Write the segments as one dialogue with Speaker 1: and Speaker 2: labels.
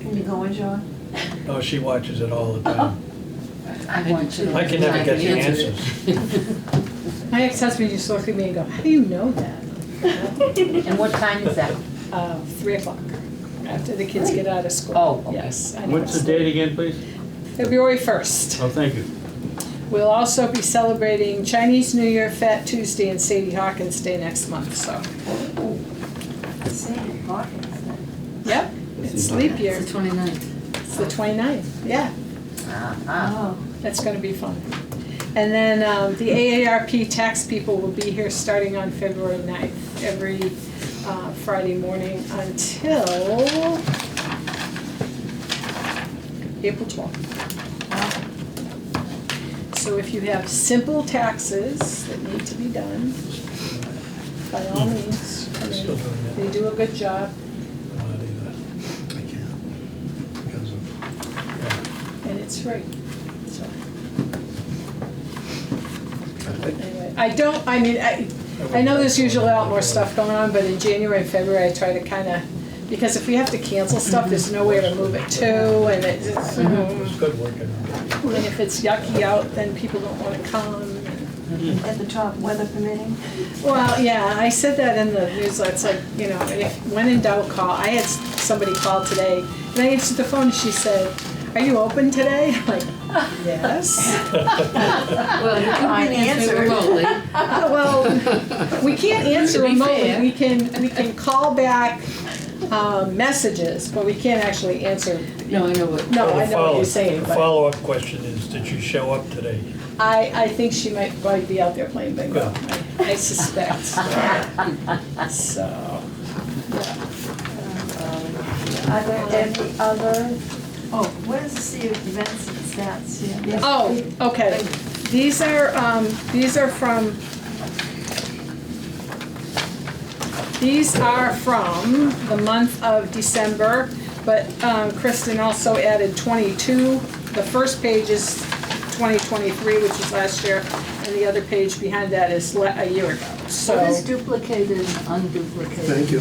Speaker 1: You going, John?
Speaker 2: Oh, she watches it all the time.
Speaker 3: I want to.
Speaker 2: I can never get the
Speaker 3: answer.
Speaker 4: My ex-husband used to look at me and go, how do you know that?
Speaker 3: And what time is that?
Speaker 4: Uh, Three o'clock, after the kids get out of school.
Speaker 3: Oh, okay.
Speaker 4: Yes. I know.
Speaker 5: What's the date again, please?
Speaker 4: February first.
Speaker 5: Oh, thank you.
Speaker 4: We'll also be celebrating Chinese New Year, Fat Tuesday, and Sadie Hawkins Day next month, so,
Speaker 1: Sandy Hawkins.
Speaker 4: yep. It's leap year.
Speaker 3: It's the 29th.
Speaker 4: It's the 29th. yeah.
Speaker 3: Uh-huh.
Speaker 1: Oh,
Speaker 4: That's gonna be fun. And then um, the AARP tax people will be here starting on February 9th, every uh, Friday morning until April 12th. So if you have simple taxes that need to be done, by all means, come
Speaker 2: I'm Hmm. still
Speaker 4: in.
Speaker 2: doing that.
Speaker 4: they do a good job.
Speaker 2: I'm not either. I can't. Because of,
Speaker 4: and it's free, so. Anyway, I don't, I mean, I, I know there's usually a lot more stuff going on, but in January and February, I try to kinda, because if we have to cancel stuff, there's nowhere to move it to, and it's, it's,
Speaker 2: yeah. It's
Speaker 4: um,
Speaker 2: good working on it.
Speaker 4: and if it's yucky out, then people don't wanna come.
Speaker 1: at the top, weather permitting.
Speaker 4: Well, yeah, I said that in the newsletter, it's like, you know, if, when in doubt, call. I had s- somebody call today, and I answered the phone, and she said, are you open today? I'm like, yes.
Speaker 3: Well, you can answer
Speaker 1: answer.
Speaker 3: remotely.
Speaker 4: Uh, Well, we can't answer
Speaker 3: To be
Speaker 4: remotely,
Speaker 3: fair.
Speaker 4: we can, we can call back, um, messages, but we can't actually answer.
Speaker 3: No, I know what.
Speaker 4: No, I know what
Speaker 2: Follow-
Speaker 4: you're saying,
Speaker 2: The
Speaker 4: but
Speaker 2: follow-up question is, did you show up today?
Speaker 4: I, I think she might probably be out there playing bingo, I- I suspect. So,
Speaker 1: Are there any other, oh, what is the C of events and stats here?
Speaker 4: oh, okay, these are, um, these are from, these are from the month of December, but um, Kristen also added twenty-two. The first page is twenty twenty-three, which is last year, and the other page behind that is le- a year ago, so.
Speaker 3: What is duplicated and unduplicated?
Speaker 6: Thank you.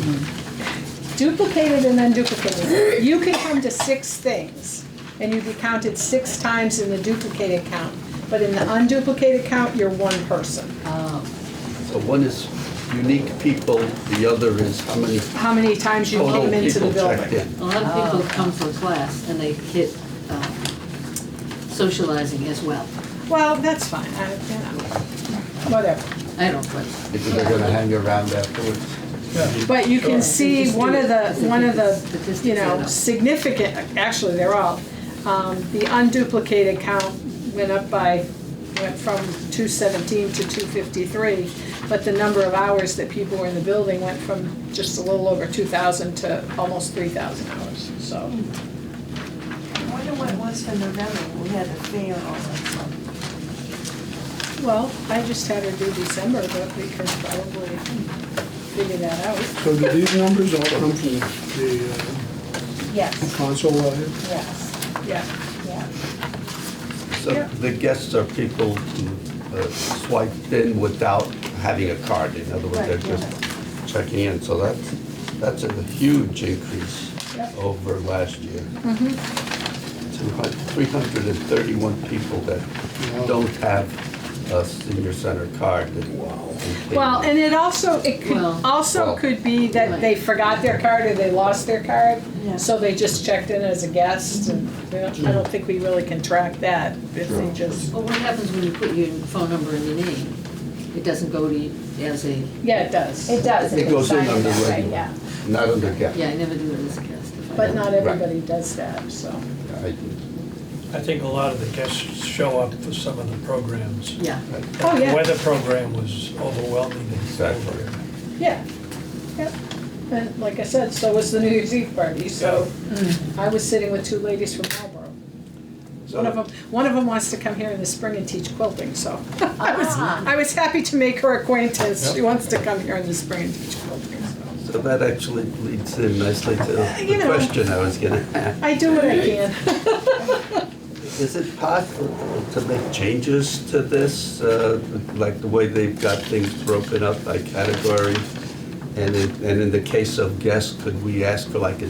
Speaker 4: duplicated and unduplicated. You can come to six things, and you'd be counted six times in the duplicated count. But in the unduplicated count, you're one person.
Speaker 3: Uh,
Speaker 6: So one is unique people, the other is how many
Speaker 4: How many times you
Speaker 6: total
Speaker 4: came into the
Speaker 6: people checked
Speaker 4: building.
Speaker 6: in.
Speaker 3: A lot of people come to a class and they hit um, socializing as well.
Speaker 4: Well, that's fine, I, you know, whatever.
Speaker 3: I don't question.
Speaker 6: If they're gonna hang around afterwards.
Speaker 4: But you can
Speaker 2: Sure.
Speaker 4: see one of the, one of the,
Speaker 3: Statistics
Speaker 4: you know,
Speaker 3: add up.
Speaker 4: significant, actually, they're all, um, the unduplicated count went up by, went from two seventeen to two fifty-three, but the number of hours that people were in the building went from just a little over two thousand to almost three thousand hours, so.
Speaker 1: I wonder what it was for November, we had a fair all that month.
Speaker 4: Well, I just had her do December, but we could probably figure that out.
Speaker 7: So do these numbers all come from the uh,
Speaker 1: Yes,
Speaker 7: console line?
Speaker 1: yes,
Speaker 4: Yeah,
Speaker 1: yeah.
Speaker 6: So the guests are people who uh, swiped in without having a card. In other words, they're
Speaker 1: Right, yeah.
Speaker 6: just checking in. So that's, that's a huge increase
Speaker 4: Yep.
Speaker 6: over last year.
Speaker 4: Mm-hmm.
Speaker 6: Two hun- 331 people that
Speaker 7: Wow.
Speaker 6: don't have a senior center card. that- and came
Speaker 4: well, and it also, it could,
Speaker 3: Well-
Speaker 4: also
Speaker 6: Well.
Speaker 4: could be that they forgot their card or they lost their card.
Speaker 1: Yeah.
Speaker 4: So they just checked in as a guest, and we don't- I don't think we really can track that, if they just,
Speaker 3: Well, what happens when you put your phone number and your name? It doesn't go to you as a,
Speaker 4: yeah, it does.
Speaker 8: It does,
Speaker 6: It
Speaker 8: it
Speaker 6: goes
Speaker 8: goes
Speaker 6: in
Speaker 8: signed
Speaker 6: under
Speaker 8: that way,
Speaker 6: regular.
Speaker 8: yeah.
Speaker 6: Not under guest.
Speaker 3: yeah, I never do it as a guest. if I
Speaker 4: But
Speaker 3: don't-
Speaker 4: not everybody does that, so.
Speaker 6: I-
Speaker 2: I think a lot of the guests show up for some of the programs.
Speaker 3: Yeah.
Speaker 4: Oh, yeah.
Speaker 2: The weather program was overwhelming.
Speaker 6: Exactly.
Speaker 4: Yeah, yeah. And like I said, so was the New Year's Eve party, so I was sitting with two ladies from Marlboro. One of them, one of them wants to come here in the spring and teach quilting, so I was, I was happy to make her acquaintance. She wants to come here in the spring and teach quilting, so.
Speaker 6: So that actually leads in nicely to
Speaker 4: You
Speaker 6: the
Speaker 4: know.
Speaker 6: question I was gonna ask.
Speaker 4: I do what I can.
Speaker 6: Is it possible to make changes to this, uh, like the way they've got things broken up by category? And in, and in the case of guests, could we ask for like a